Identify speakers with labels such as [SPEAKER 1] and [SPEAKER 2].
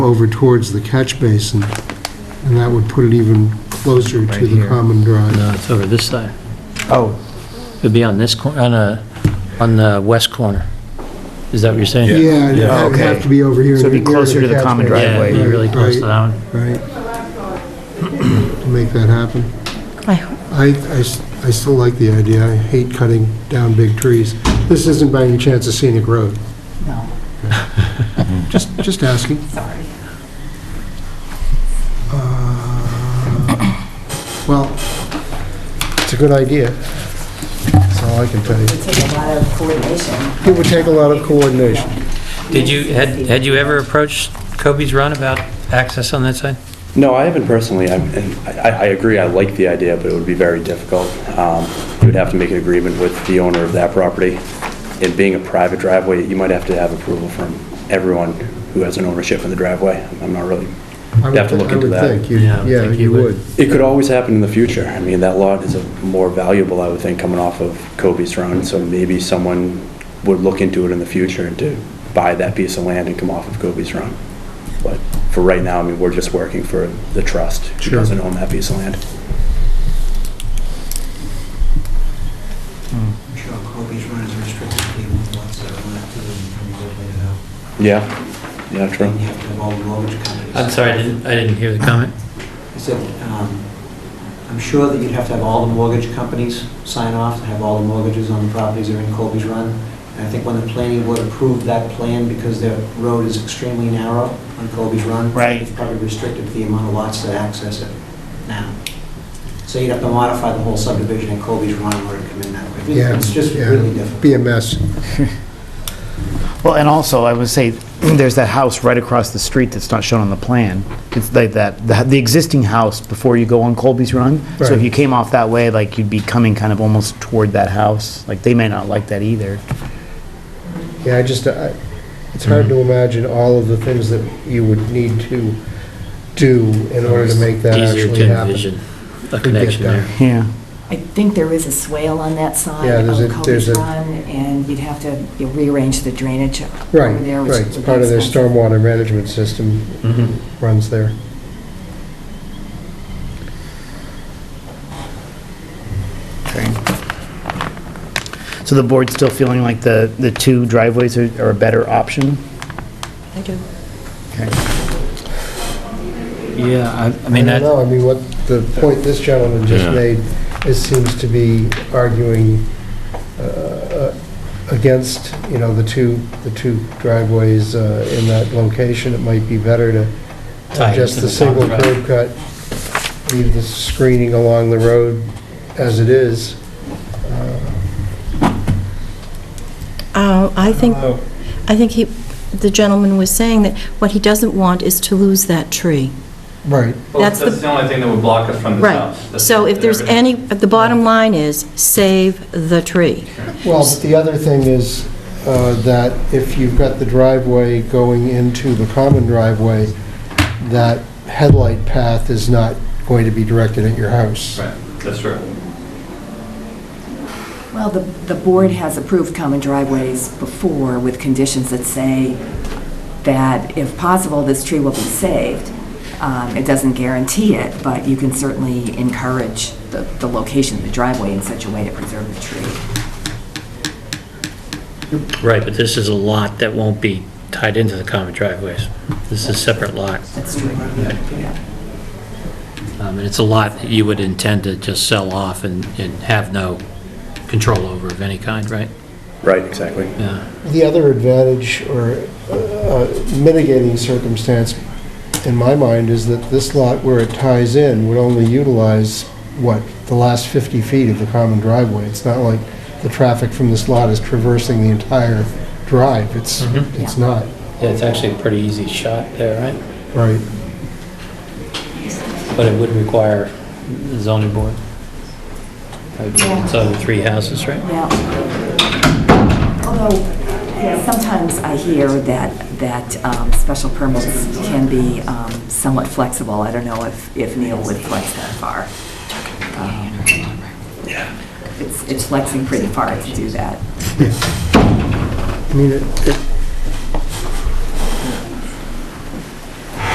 [SPEAKER 1] over towards the catch basin, and that would put it even closer
[SPEAKER 2] Right
[SPEAKER 1] to the
[SPEAKER 2] here.
[SPEAKER 1] common drive.
[SPEAKER 3] No, Uh, it's over this side.
[SPEAKER 2] Oh,
[SPEAKER 3] It'd be on this corner, on a, on the west corner. Is that what you're saying?
[SPEAKER 1] Yeah, it'd
[SPEAKER 2] Yeah.
[SPEAKER 1] have- it'd have to be over here.
[SPEAKER 2] So it'd be
[SPEAKER 1] near the
[SPEAKER 2] closer to the
[SPEAKER 1] catch
[SPEAKER 2] common
[SPEAKER 1] basin.
[SPEAKER 3] Yeah,
[SPEAKER 2] driveway.
[SPEAKER 3] you're really close to that one.
[SPEAKER 1] Right, right. to make that happen.
[SPEAKER 4] I-
[SPEAKER 1] I, I s- I still like the idea, I hate cutting down big trees. This isn't by any chance a scenic road,
[SPEAKER 4] No,
[SPEAKER 1] just, just asking.
[SPEAKER 4] sorry.
[SPEAKER 1] Uh, Well, it's a good idea, that's all I can tell you.
[SPEAKER 4] It takes a lot of coordination.
[SPEAKER 1] It would take a lot of coordination.
[SPEAKER 3] Did you, had, had you ever approached Kobe's Run about access on that side?
[SPEAKER 5] No, I haven't personally, I'm- and I I agree, I like the idea, but it would be very difficult. Um, You would have to make an agreement with the owner of that property. It being a private driveway, you might have to have approval from everyone who has an ownership in the driveway. I'm not really,
[SPEAKER 1] I
[SPEAKER 5] you have to
[SPEAKER 1] would-
[SPEAKER 5] look into
[SPEAKER 1] I
[SPEAKER 5] that.
[SPEAKER 1] would think, you-
[SPEAKER 3] Yeah, I would
[SPEAKER 1] yeah,
[SPEAKER 3] think
[SPEAKER 1] you
[SPEAKER 3] you would.
[SPEAKER 1] would.
[SPEAKER 5] It could always happen in the future. I mean, that lot is a- more valuable, I would think, coming off of Kobe's Run, so maybe someone would look into it in the future and to buy that piece of land and come off of Kobe's Run. But for right now, I mean, we're just working for the trust, who
[SPEAKER 1] Sure.
[SPEAKER 5] doesn't own that piece of land.
[SPEAKER 6] I'm sure Kobe's Run is restricted to people who wants to run it through and regulate it out.
[SPEAKER 5] Yeah, yeah, true.
[SPEAKER 6] And you have to involve the mortgage companies.
[SPEAKER 3] I'm sorry, I didn't, I didn't hear the comment.
[SPEAKER 6] I said, um, I'm sure that you'd have to have all the mortgage companies sign off, and have all the mortgages on the properties that are in Kobe's Run. And I think when the planning board approved that plan, because their road is extremely narrow on Kobe's Run.
[SPEAKER 2] Right.
[SPEAKER 6] It's probably restricted to the amount of lots that access it now. So you'd have to modify the whole subdivision in Kobe's Run in order to come in that way.
[SPEAKER 1] Yeah,
[SPEAKER 6] It's just
[SPEAKER 1] yeah.
[SPEAKER 6] really difficult.
[SPEAKER 1] Be a mess.
[SPEAKER 2] well, and also, I would say, there's that house right across the street that's not shown on the plan. It's like that, the the existing house before you go on Colby's Run. So
[SPEAKER 1] Right.
[SPEAKER 2] if you came off that way, like, you'd be coming kind of almost toward that house. Like, they may not like that either.
[SPEAKER 1] Yeah, I just, I, it's hard
[SPEAKER 3] Mm-hmm.
[SPEAKER 1] to imagine all of the things that you would need to do in order to make that
[SPEAKER 3] Easier
[SPEAKER 1] actually
[SPEAKER 3] to
[SPEAKER 1] happen.
[SPEAKER 3] envision a connection there.
[SPEAKER 2] Yeah.
[SPEAKER 4] I think there is a swale on that side
[SPEAKER 1] Yeah, there's a-
[SPEAKER 4] of
[SPEAKER 1] there's
[SPEAKER 4] Kobe's
[SPEAKER 1] a-
[SPEAKER 4] Run, and you'd have to you know, rearrange the drainage over
[SPEAKER 1] Right,
[SPEAKER 4] there. which
[SPEAKER 1] right, it's
[SPEAKER 4] would be
[SPEAKER 1] part of their
[SPEAKER 4] expensive.
[SPEAKER 1] stormwater management system
[SPEAKER 3] Mhm.
[SPEAKER 1] runs there.
[SPEAKER 2] Okay. So the board's still feeling like the, the two driveways are are a better option?
[SPEAKER 4] I do.
[SPEAKER 2] Okay.
[SPEAKER 3] Yeah, I, I
[SPEAKER 1] I don't
[SPEAKER 3] mean, that,
[SPEAKER 1] know, I mean, what, the point this gentleman just
[SPEAKER 7] Yeah.
[SPEAKER 1] made, it seems to be arguing uh, against, you know, the two, the two driveways uh, in that location. It might be better to
[SPEAKER 3] Tie it
[SPEAKER 1] just
[SPEAKER 3] to
[SPEAKER 1] the
[SPEAKER 3] the top
[SPEAKER 1] single
[SPEAKER 3] drive.
[SPEAKER 1] curb cut, leave the screening along the road as it is.
[SPEAKER 8] Uh, I think, I think he, the gentleman was saying that what he doesn't want is to lose that tree.
[SPEAKER 1] Right.
[SPEAKER 9] Well,
[SPEAKER 8] That's
[SPEAKER 9] that's
[SPEAKER 8] the-
[SPEAKER 9] the only thing that would block us from the
[SPEAKER 8] Right.
[SPEAKER 9] south.
[SPEAKER 8] So if there's any, the bottom line is, save the tree.
[SPEAKER 1] Well, but the other thing is uh, that if you've got the driveway going into the common driveway, that headlight path is not going to be directed at your house.
[SPEAKER 9] Right, that's true.
[SPEAKER 4] Well, the, the board has approved common driveways before with conditions that say that if possible, this tree will be saved. Um, It doesn't guarantee it, but you can certainly encourage the, the location of the driveway in such a way to preserve the tree.
[SPEAKER 3] right, but this is a lot that won't be tied into the common driveways. This is a separate lot.
[SPEAKER 4] That's true. Yeah.
[SPEAKER 3] Um, And it's a lot that you would intend to just sell off and, and have no control over of any kind, right?
[SPEAKER 5] Right, exactly.
[SPEAKER 3] Yeah.
[SPEAKER 1] The other advantage or uh, mitigating circumstance in my mind is that this lot where it ties in would only utilize, what, the last 50 feet of the common driveway. It's not like the traffic from this lot is traversing the entire drive. It's,
[SPEAKER 3] Mhm.
[SPEAKER 1] it's not,
[SPEAKER 3] Yeah, it's actually a pretty easy shot there, right?
[SPEAKER 1] right?
[SPEAKER 3] But it would require the zoning board.
[SPEAKER 4] Yeah.
[SPEAKER 3] It's over three houses, right?
[SPEAKER 4] Yeah. Although, yeah, sometimes I hear that, that um, special permits can be um, somewhat flexible. I don't know if, if Neil would flex that far. Um, It's, it's flexing pretty far to do that.
[SPEAKER 1] I mean, it- it-